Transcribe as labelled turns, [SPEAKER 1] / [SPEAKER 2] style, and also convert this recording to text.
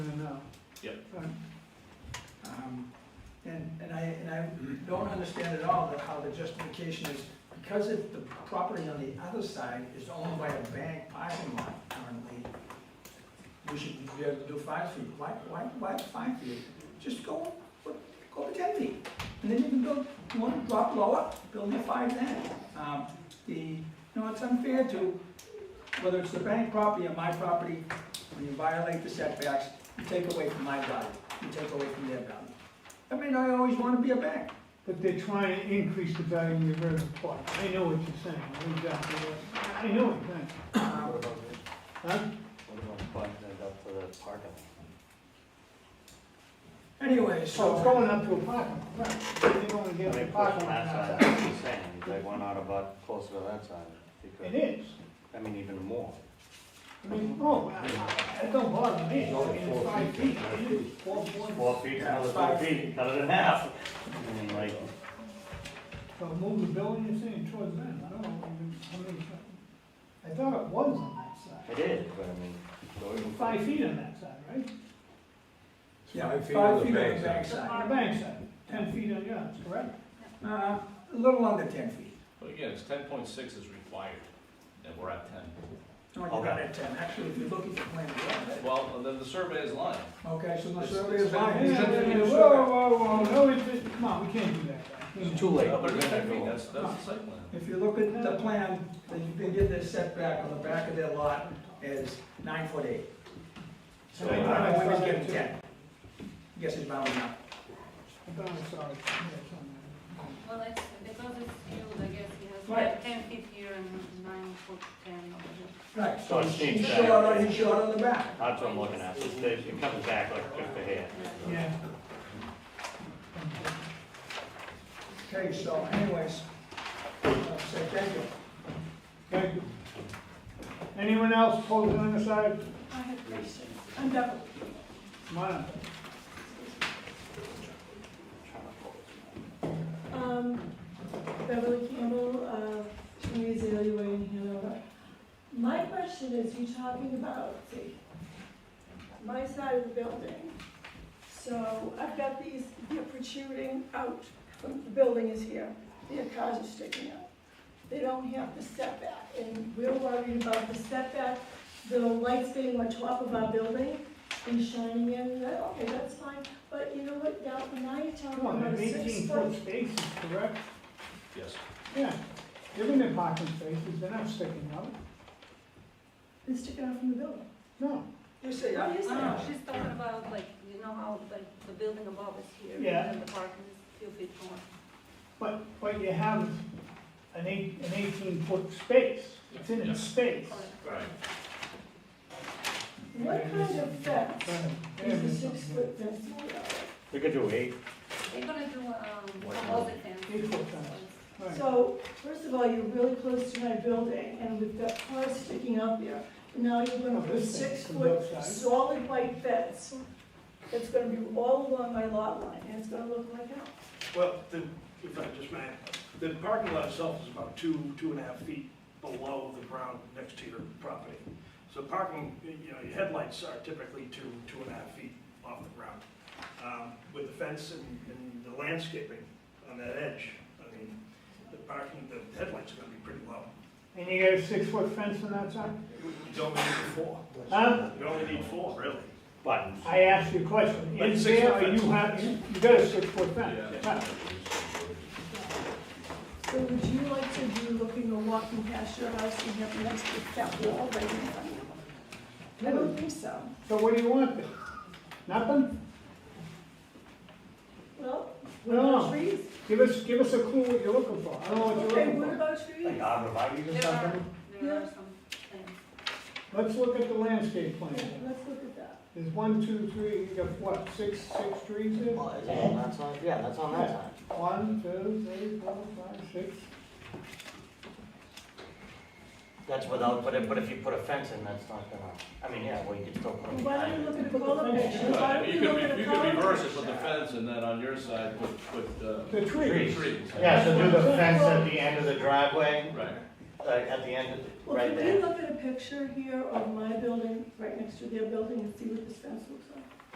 [SPEAKER 1] Yep.
[SPEAKER 2] Um, And, and I, and I don't understand at all that how the justification is, because if the property on the other side is owned by a bank parking lot currently, we should be able to do five feet, why, why, why five feet? Just go, go to ten feet, and then you can go, you wanna drop lower, build your five then. Um, The, you know, it's unfair to, whether it's the bank property or my property, when you violate the setbacks, you take away from my value, you take away from their value. I mean, I always wanna be a bank,
[SPEAKER 3] But they're trying to increase the value of your real plot. I know what you're saying, I know exactly what, I know what you're saying.
[SPEAKER 2] um,
[SPEAKER 4] What about this?
[SPEAKER 3] Huh?
[SPEAKER 4] What about buttoning it up to the parking?
[SPEAKER 2] anyway,
[SPEAKER 3] So Oh,
[SPEAKER 2] so,
[SPEAKER 3] it's going up to a parking, right, they're going to
[SPEAKER 4] They
[SPEAKER 3] get a
[SPEAKER 4] pushed
[SPEAKER 3] parking lot
[SPEAKER 4] that side,
[SPEAKER 3] outside.
[SPEAKER 4] that's the same, they went out about closer to that side,
[SPEAKER 3] It
[SPEAKER 4] because,
[SPEAKER 3] is,
[SPEAKER 4] I mean, even more.
[SPEAKER 3] I mean, oh, I- I- it don't bother me, I mean, it's five feet, it is four
[SPEAKER 4] It's
[SPEAKER 3] point.
[SPEAKER 4] Four feet, another four feet, cut it in half. I mean, like,
[SPEAKER 3] So move the building you're saying towards them, I don't know, I mean, I thought it was on that side,
[SPEAKER 4] it is, but I mean. so even-
[SPEAKER 3] five feet on that side, right?
[SPEAKER 2] yeah,
[SPEAKER 5] Five
[SPEAKER 2] five
[SPEAKER 5] feet
[SPEAKER 2] feet
[SPEAKER 5] on
[SPEAKER 2] on
[SPEAKER 5] the
[SPEAKER 2] the
[SPEAKER 5] bank
[SPEAKER 2] bank
[SPEAKER 3] On
[SPEAKER 2] side.
[SPEAKER 3] the bank side, ten feet on yours, correct?
[SPEAKER 2] Uh, a little under ten feet.
[SPEAKER 1] But again, it's ten point six is required, and we're at ten.
[SPEAKER 2] No, you got it at ten, actually, if you look at the plan, you got it.
[SPEAKER 1] Well, and then the survey is lying.
[SPEAKER 2] Okay, so the
[SPEAKER 1] It's-
[SPEAKER 2] survey
[SPEAKER 1] it's
[SPEAKER 2] is
[SPEAKER 1] been-
[SPEAKER 3] Whoa,
[SPEAKER 2] lying.
[SPEAKER 1] it's been-
[SPEAKER 3] whoa, whoa, no, it's, it's- come on, we can't do that. guys. We
[SPEAKER 4] It's
[SPEAKER 3] can't.
[SPEAKER 4] too late.
[SPEAKER 1] But it's
[SPEAKER 4] We're gonna
[SPEAKER 1] 10 feet,
[SPEAKER 4] go.
[SPEAKER 1] that's, that's the site plan.
[SPEAKER 2] If you look at the plan, then you can get the setback on the back of their lot is nine foot eight. So
[SPEAKER 4] uh,
[SPEAKER 3] I
[SPEAKER 2] I
[SPEAKER 3] thought I
[SPEAKER 2] don't
[SPEAKER 3] saw
[SPEAKER 2] always
[SPEAKER 3] that
[SPEAKER 2] get
[SPEAKER 3] too.
[SPEAKER 2] ten. Guess it's bound up.
[SPEAKER 3] I thought I saw it. Yeah, it's on there.
[SPEAKER 6] Well, it's because it's field, I guess he has
[SPEAKER 2] Right.
[SPEAKER 6] like ten feet here and nine foot ten over
[SPEAKER 2] Right.
[SPEAKER 4] So it's
[SPEAKER 2] He's
[SPEAKER 4] changed
[SPEAKER 2] short on,
[SPEAKER 4] back.
[SPEAKER 2] he's short on the back.
[SPEAKER 4] That's what I'm looking at, it's, it comes back like just a hair.
[SPEAKER 6] here.
[SPEAKER 3] Yeah.
[SPEAKER 2] Okay, so anyways, I'll say thank you.
[SPEAKER 3] Thank you. Anyone else opposed on the side?
[SPEAKER 6] I have questions. I'm double.
[SPEAKER 3] Come on up.
[SPEAKER 7] Um, Beverly Campbell, uh, Community Azalea Way in Hanover. My question is, you're talking about, see, my side of the building. So I've got these, they're protruding out, from- the building is here, their cars are sticking out. They don't have the setback, and we're worried about the setback, the lights being on top of our building and shining in, that, okay, that's fine. But you know what, now, now you're talking
[SPEAKER 3] Come on,
[SPEAKER 7] about
[SPEAKER 3] there's
[SPEAKER 7] a six
[SPEAKER 3] eighteen
[SPEAKER 7] foot
[SPEAKER 3] foot spaces, correct?
[SPEAKER 1] Yes.
[SPEAKER 3] Yeah. They're in their parking spaces, they're not sticking out.
[SPEAKER 7] They're sticking out from the building.
[SPEAKER 3] No.
[SPEAKER 2] You say, ah,
[SPEAKER 7] Oh, you
[SPEAKER 6] No,
[SPEAKER 7] say-
[SPEAKER 6] no, she's talking about like, you know how like the building above is here
[SPEAKER 3] Yeah.
[SPEAKER 6] and the parking is few feet more.
[SPEAKER 3] But, but you have an eight, an eighteen foot space. It's in
[SPEAKER 1] Yeah.
[SPEAKER 3] its space.
[SPEAKER 6] Correct.
[SPEAKER 1] Right.
[SPEAKER 7] What kind of fence
[SPEAKER 3] Go ahead.
[SPEAKER 7] is a six foot fence made out of?
[SPEAKER 4] We could do eight,
[SPEAKER 6] They're gonna do, um,
[SPEAKER 4] What?
[SPEAKER 6] composite fence.
[SPEAKER 3] Eight foot fence. Right.
[SPEAKER 7] So, first of all, you're really close to my building, and we've got cars sticking out there. Now you're gonna put a
[SPEAKER 3] This thing
[SPEAKER 7] six
[SPEAKER 3] from
[SPEAKER 7] foot
[SPEAKER 3] both sides.
[SPEAKER 7] solid white fence. It's gonna be all along my lot line, and it's gonna look like hell.
[SPEAKER 8] Well, the, if I just may, the parking lot itself is about two, two and a half feet below the ground next to your property. So parking, you know, your headlights are typically two, two and a half feet off the ground. Um, With the fence and, and the landscaping on that edge, I mean, the parking, the headlights are gonna be pretty low.
[SPEAKER 3] And you got a six foot fence on that side?
[SPEAKER 8] You only need four,
[SPEAKER 3] Huh?
[SPEAKER 8] you only need four, really.
[SPEAKER 4] but
[SPEAKER 3] I asked you a question,
[SPEAKER 8] But
[SPEAKER 3] is
[SPEAKER 8] six
[SPEAKER 3] there,
[SPEAKER 8] foot
[SPEAKER 3] or you
[SPEAKER 8] fence.
[SPEAKER 3] have, you you got a six foot fence?
[SPEAKER 1] Yeah.
[SPEAKER 7] So would you like to be looking or walking past your house and have next to that wall right in front of you? I don't think so.
[SPEAKER 3] So what do you want then? Nothing?
[SPEAKER 7] Well, what about
[SPEAKER 3] No,
[SPEAKER 7] trees?
[SPEAKER 3] give us, give us a clue what you're looking for, I don't know what you're
[SPEAKER 7] Okay, what
[SPEAKER 3] looking for.
[SPEAKER 7] about trees?
[SPEAKER 4] like arborvitae's or
[SPEAKER 6] There are,
[SPEAKER 4] something?
[SPEAKER 6] there are
[SPEAKER 7] Yeah.
[SPEAKER 6] some plants.
[SPEAKER 3] Let's look at the landscape
[SPEAKER 7] Okay,
[SPEAKER 3] plan.
[SPEAKER 7] Let's look at that.
[SPEAKER 3] There's one, two, three, you got what, six, six trees there?
[SPEAKER 4] Well, is it on that side? Yeah, that's on that
[SPEAKER 3] Yeah.
[SPEAKER 4] side.
[SPEAKER 3] One, two, three, four, five, six.
[SPEAKER 4] That's without, but if, but if you put a fence in, that's not gonna, I mean, yeah, well, you could still put a.
[SPEAKER 7] Why don't we look at a color
[SPEAKER 3] Put the
[SPEAKER 7] picture?
[SPEAKER 3] fence
[SPEAKER 7] Why
[SPEAKER 1] But
[SPEAKER 7] don't
[SPEAKER 1] You
[SPEAKER 7] we look
[SPEAKER 1] could, re-
[SPEAKER 7] at a
[SPEAKER 1] you could
[SPEAKER 7] color
[SPEAKER 1] reverse it
[SPEAKER 7] picture?
[SPEAKER 1] with the fence, and then on your side, put, put, uh,
[SPEAKER 3] The trees.
[SPEAKER 1] trees.
[SPEAKER 4] Yeah, so do the fence at the end of the driveway,
[SPEAKER 1] Right.
[SPEAKER 4] uh, at the end of,
[SPEAKER 7] Well,
[SPEAKER 4] right
[SPEAKER 7] can we
[SPEAKER 4] there.
[SPEAKER 7] look at a picture here of my building right next to their building and see what this fence looks like?